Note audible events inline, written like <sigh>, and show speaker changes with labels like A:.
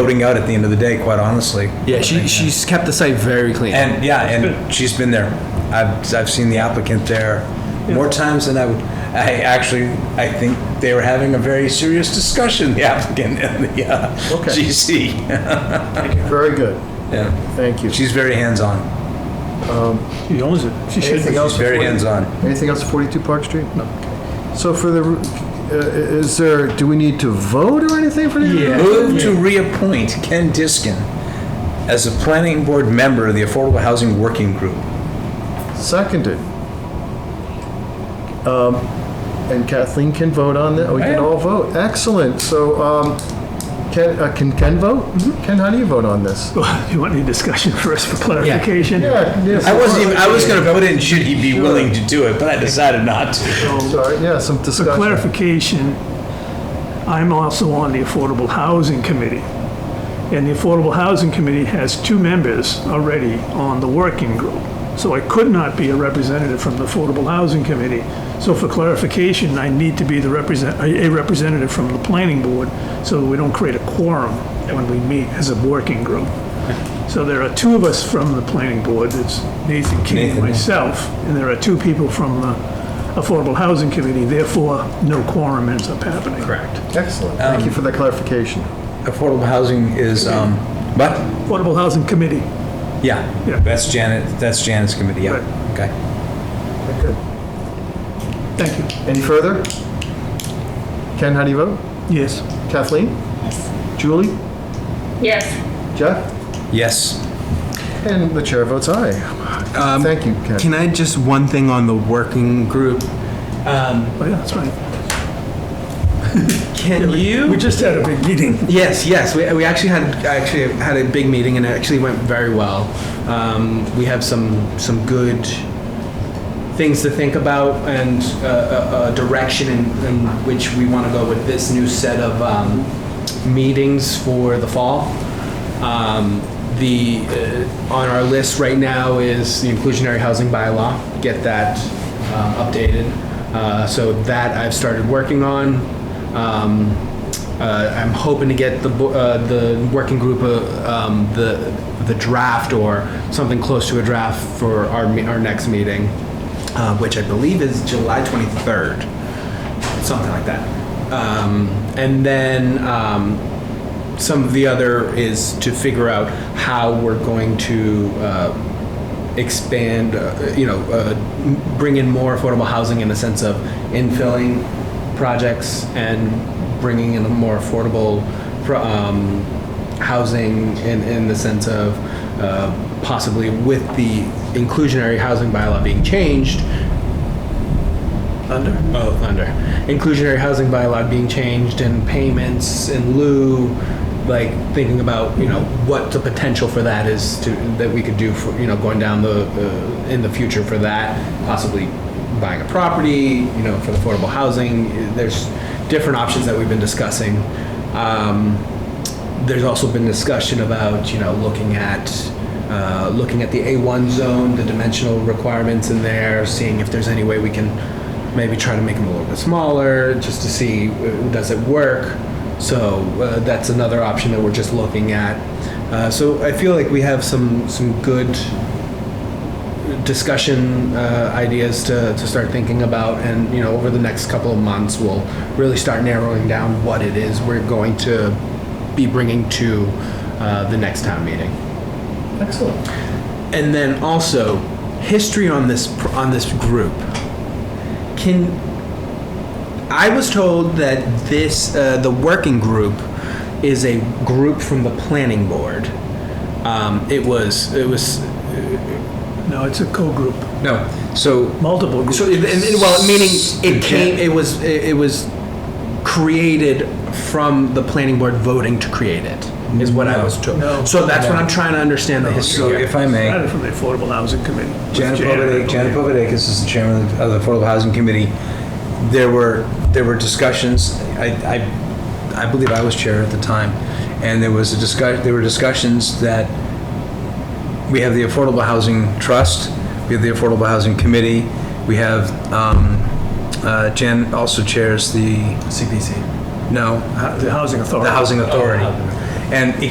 A: voting out at the end of the day, quite honestly.
B: Yeah, she, she's kept the site very clean.
A: And, yeah, and she's been there. I've, I've seen the applicant there more times than I would, I actually, I think they were having a very serious discussion, the applicant <laughs> and the uh,
C: Okay.
A: GC.
C: Very good.
A: Yeah.
C: Thank you.
A: <laughs> She's very hands-on,
D: She owns it. She should
C: Anything
D: be.
C: else?
A: she's very
C: for 40
A: hands-on.
C: Anything else for 42 Park Street? No. So for the, uh, is there, do we need to vote or anything for the?
D: Yeah.
A: Move to reappoint Ken Diskin as a planning board member of the Affordable Housing Working Group.
C: Seconded. Um, And Kathleen can vote on that, we can all vote. Excellent, so um, Ken, uh, can Ken vote? Ken, how do you vote on this?
D: <laughs> You want any discussion first for clarification?
C: Yeah, yes,
A: I wasn't even,
C: of
A: I was gonna put in, should he be willing to do it, but I decided not to.
C: course. Sorry, yeah, some
D: For
C: discussion.
D: clarification, I'm also on the Affordable Housing Committee. And the Affordable Housing Committee has two members already on the working group. So I could not be a representative from the Affordable Housing Committee. So for clarification, I need to be the represent, a a representative from the planning board so that we don't create a quorum when we meet as a working group. So there are two of us from the planning board, it's Nathan King and
A: Nathan, yeah.
D: myself, and there are two people from the Affordable Housing Committee, therefore, no quorum ends up happening. Correct.
C: Excellent, thank you for that clarification.
A: Affordable housing is, um, what?
D: Affordable Housing Committee,
A: Yeah.
D: Yeah.
A: That's Janet, that's Janet's committee, yeah, okay.
C: Good.
D: thank you.
C: Any further? Ken, how do you vote?
D: Yes.
C: Kathleen? Julie?
E: Yes,
C: Jeff?
A: Yes,
C: And the chair votes aye. Thank you, Ken.
B: Can I just one thing on the working group?
D: Oh, yeah, that's right.
B: Can you?
D: We just had a big meeting.
B: Yes, yes. We, we actually had actually had a big meeting and it actually went very well. Um, we have some some good things to think about and uh, a, a direction in, in which we want to go with this new set of um, meetings for the fall. Um, the uh, on our list right now is the inclusionary housing bylaw. Get that uh, updated. Uh, so that I've started working on. Um, uh, I'm hoping to get the, bo- uh, the working group, uh, um, the, the draft or something close to a draft for our, me- our next meeting, uh, which I believe is July 23rd, something like that. Um, and then, um, some of the other is to figure out how we're going to uh, expand, uh, you know, uh, m- bring in more affordable housing in the sense of infilling projects and bringing in a more affordable pro- um, housing in, in the sense of uh, possibly with the inclusionary housing bylaw being changed, under? Oh, under. Inclusionary housing bylaw being changed and payments in lieu, like thinking about, you know, what the potential for that is to, that we could do for, you know, going down the, uh, in the future for that, possibly buying a property, you know, for affordable housing. There's different options that we've been discussing. Um, there's also been discussion about, you know, looking at, uh, looking at the A1 zone, the dimensional requirements in there, seeing if there's any way we can maybe try to make them a little bit smaller, just to see, uh, does it work? So uh, that's another option that we're just looking at. Uh, So I feel like we have some, some good discussion uh, ideas to, to start thinking about and you know over the next couple of months we'll really start narrowing down what it is we're going to be bringing to uh, the next town meeting
C: Excellent.
B: and then also history on this pr- on this group can i was told that this uh, the working group is a group from the planning board um, it was it was
D: No, it's a co-group,
B: no so
D: multiple groups.
B: So, and, and, well, meaning it came, it was, it, it was created from the planning board voting to create it, is what I was told.
D: No.
B: So that's what I'm trying to understand the history.
A: so
B: here.
A: if I may.
D: Started from the Affordable Housing Committee. with
A: Janet
D: Jan, I
A: Povodakis, Janet
D: believe.
A: Povodakis is the chairman of the- of the Affordable Housing Committee. There were, there were discussions, I, I, I believe I was chair at the time, and there was a discuss, there were discussions that we have the Affordable Housing Trust, we have the Affordable Housing Committee, we have, um, uh, Jan also chairs the,
B: CPC.
A: no, uh,
D: uh, The Housing Authority.
A: the Housing Authority. And it